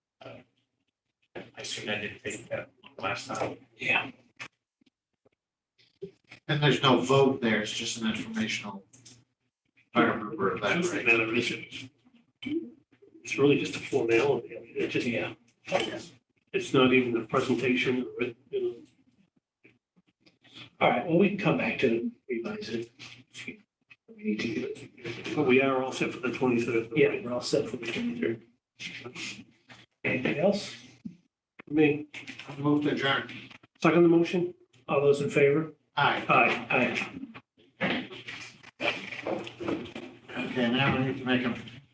I assume I didn't take that last time. Yeah. And there's no vote there, it's just an informational. If I remember that Just a right. matter of issues. It's really just a formality. I mean, It's just, Yeah. it's not even a presentation or, it, you know, All right, well, we can come back to revise it. if We need to do it. but we are all set for the twenty-third. Yeah, we're all set for the twenty-third. Anything else? Me, I Move to adjourn. second the motion? All those in favor? Aye. Aye. Aye. Okay, now we need to make a